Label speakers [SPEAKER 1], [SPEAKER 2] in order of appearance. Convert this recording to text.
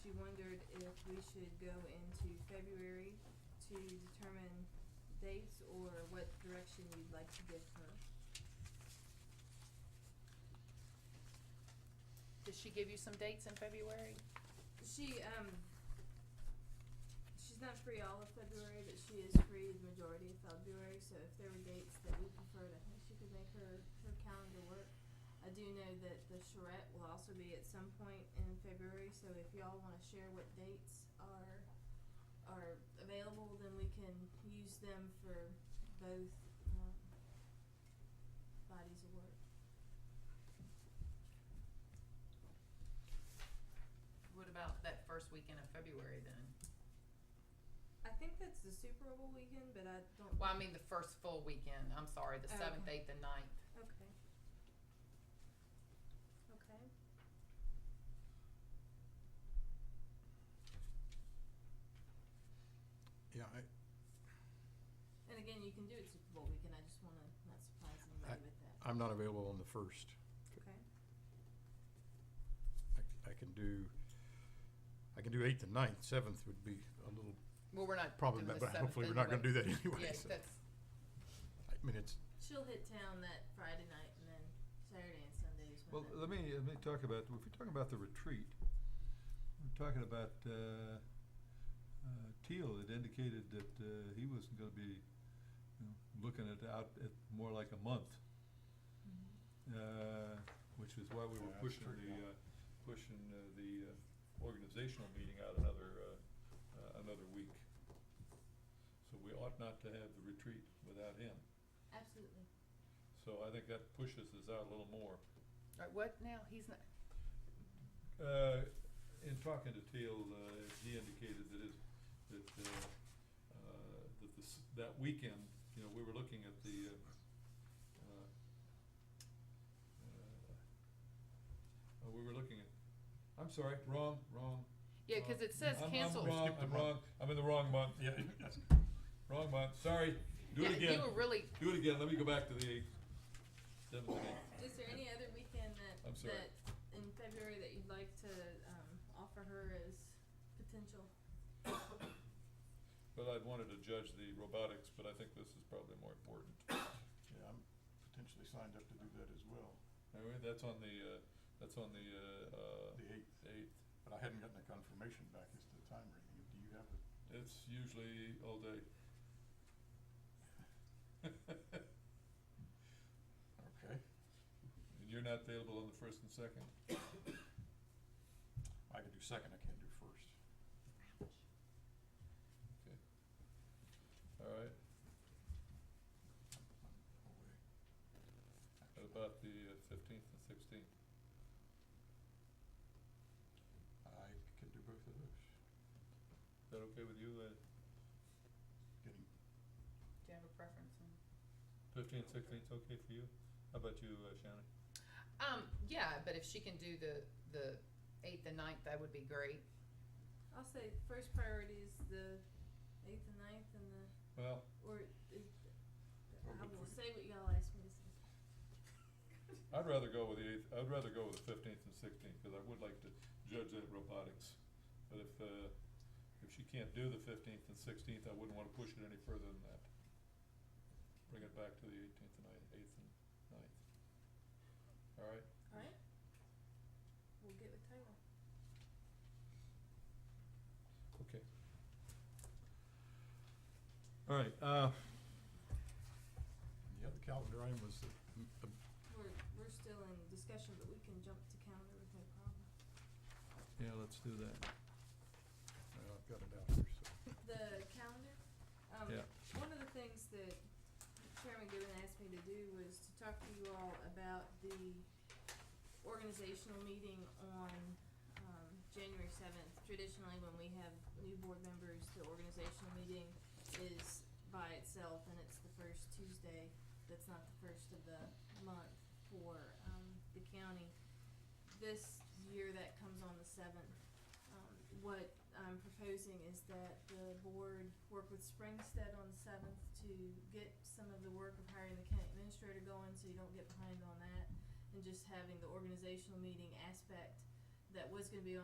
[SPEAKER 1] she wondered if we should go into February to determine dates or what direction you'd like to give her.
[SPEAKER 2] Does she give you some dates in February?
[SPEAKER 1] She, um, she's not free all of February, but she is free the majority of February, so if there were dates that we preferred, I think she could make her, her calendar work. I do know that the charrette will also be at some point in February, so if y'all wanna share what dates are, are available, then we can use them for both, um, bodies of work.
[SPEAKER 3] What about that first weekend of February then?
[SPEAKER 1] I think that's the Super Bowl weekend, but I don't.
[SPEAKER 3] Well, I mean the first full weekend. I'm sorry, the
[SPEAKER 1] Oh,
[SPEAKER 3] seventh,
[SPEAKER 1] okay.
[SPEAKER 3] eighth, and ninth.
[SPEAKER 1] Okay. Okay.
[SPEAKER 4] Yeah, I,
[SPEAKER 1] And again, you can do it Super Bowl weekend, I just wanna not surprise anybody with that,
[SPEAKER 4] I'm not available on the first.
[SPEAKER 1] okay?
[SPEAKER 4] I, c- I can do, I can do eighth and ninth, seventh would be a little,
[SPEAKER 3] Well, we're not
[SPEAKER 4] probably,
[SPEAKER 3] Uh, doing
[SPEAKER 4] but but
[SPEAKER 3] the seventh
[SPEAKER 4] hopefully we're not gonna do
[SPEAKER 3] anyway.
[SPEAKER 4] that anyway,
[SPEAKER 3] Yeah,
[SPEAKER 4] so,
[SPEAKER 3] that's
[SPEAKER 4] I mean, it's,
[SPEAKER 1] She'll hit town that Friday night and then Saturday and Sunday is
[SPEAKER 5] Well,
[SPEAKER 1] when that.
[SPEAKER 5] let me, let me talk about, if we're talking about the retreat, we're talking about, uh, uh, Teal had indicated that, uh, he wasn't gonna be, you know, looking at out at more like a month, uh, which is why we were
[SPEAKER 4] Yeah, that's
[SPEAKER 5] pushing
[SPEAKER 4] true.
[SPEAKER 5] the, uh, pushing uh, the uh, organizational meeting out another, uh, uh, another week. So we ought not to have the retreat without him,
[SPEAKER 1] Absolutely.
[SPEAKER 5] so I think that pushes us out a little more.
[SPEAKER 3] uh, what now? He's not.
[SPEAKER 5] Uh, in talking to Teal, uh, he indicated that his, that, uh, uh, that this, that weekend, you know, we were looking at the, uh, uh, uh, we were looking at, I'm sorry, wrong, wrong.
[SPEAKER 3] Yeah, 'cause
[SPEAKER 5] wrong.
[SPEAKER 3] it says
[SPEAKER 5] I'm-
[SPEAKER 3] cancel.
[SPEAKER 5] I'm wrong,
[SPEAKER 4] Skip the
[SPEAKER 5] I'm
[SPEAKER 4] month.
[SPEAKER 5] wrong, I'm in the wrong month, yeah, wrong month, sorry, do
[SPEAKER 3] yeah,
[SPEAKER 5] it again,
[SPEAKER 3] You were really.
[SPEAKER 5] do it again, let me go back to the eighth, seventh and eighth.
[SPEAKER 1] Is there any other weekend that,
[SPEAKER 5] I'm sorry.
[SPEAKER 1] that in February that you'd like to, um, offer her as potential?
[SPEAKER 5] But I'd wanted to judge the robotics, but I think this is probably more important.
[SPEAKER 6] Yeah, I'm potentially signed up to do that as well,
[SPEAKER 5] I mean, that's on the, uh, that's on the, uh,
[SPEAKER 6] the
[SPEAKER 5] uh,
[SPEAKER 6] eighth,
[SPEAKER 5] eighth.
[SPEAKER 6] but I hadn't gotten a confirmation back as to the time or anything. Do you have it?
[SPEAKER 5] It's usually all day. And
[SPEAKER 6] Okay.
[SPEAKER 5] you're not available on the first and second?
[SPEAKER 6] I can do second, I can't do first.
[SPEAKER 5] All right,
[SPEAKER 6] I'm away. Actually,
[SPEAKER 5] what about the uh, fifteenth and sixteenth?
[SPEAKER 6] I can do both of those.
[SPEAKER 5] Is that okay with you, uh,
[SPEAKER 6] Getting,
[SPEAKER 3] Do you have a preference? on-
[SPEAKER 5] fifteen, sixteen's okay for you? How about you, uh, Shannon?
[SPEAKER 3] Um, yeah, but if she can do the the eighth and ninth, that would be great.
[SPEAKER 1] I'll say first priority is the eighth and ninth and the,
[SPEAKER 5] Well,
[SPEAKER 1] or is,
[SPEAKER 6] Oh,
[SPEAKER 1] I
[SPEAKER 6] but
[SPEAKER 1] will
[SPEAKER 6] for-
[SPEAKER 1] say what y'all ask me to say.
[SPEAKER 5] I'd rather go with the eighth, I'd rather go with the fifteenth and sixteenth, cause I would like to judge that robotics. But if, uh, if she can't do the fifteenth and sixteenth, I wouldn't wanna push it any further than that. Bring it back to the eighteenth and ninth, eighth and ninth. Alright,
[SPEAKER 1] Alright? We'll get with Taylor.
[SPEAKER 5] okay. Alright, uh,
[SPEAKER 6] and the other calendar item was the,
[SPEAKER 4] m- uh,
[SPEAKER 1] We're, we're still in discussion, but we can jump to calendar with no problem.
[SPEAKER 5] yeah, let's do that.
[SPEAKER 4] well, I've got it out here, so.
[SPEAKER 1] The calendar, um,
[SPEAKER 5] Yeah.
[SPEAKER 1] one of the things that Chairman Gibbon asked me to do was to talk to you all about the organizational meeting on, um, January seventh. Traditionally, when we have new board members, the organizational meeting is by itself and it's the first Tuesday, that's not the first of the month for, um, the county. This year, that comes on the seventh. Um, what I'm proposing is that the board work with Springstead on the seventh to get some of the work of hiring the county administrator going, so you don't get behind on that. And just having the organizational meeting aspect that was gonna be on.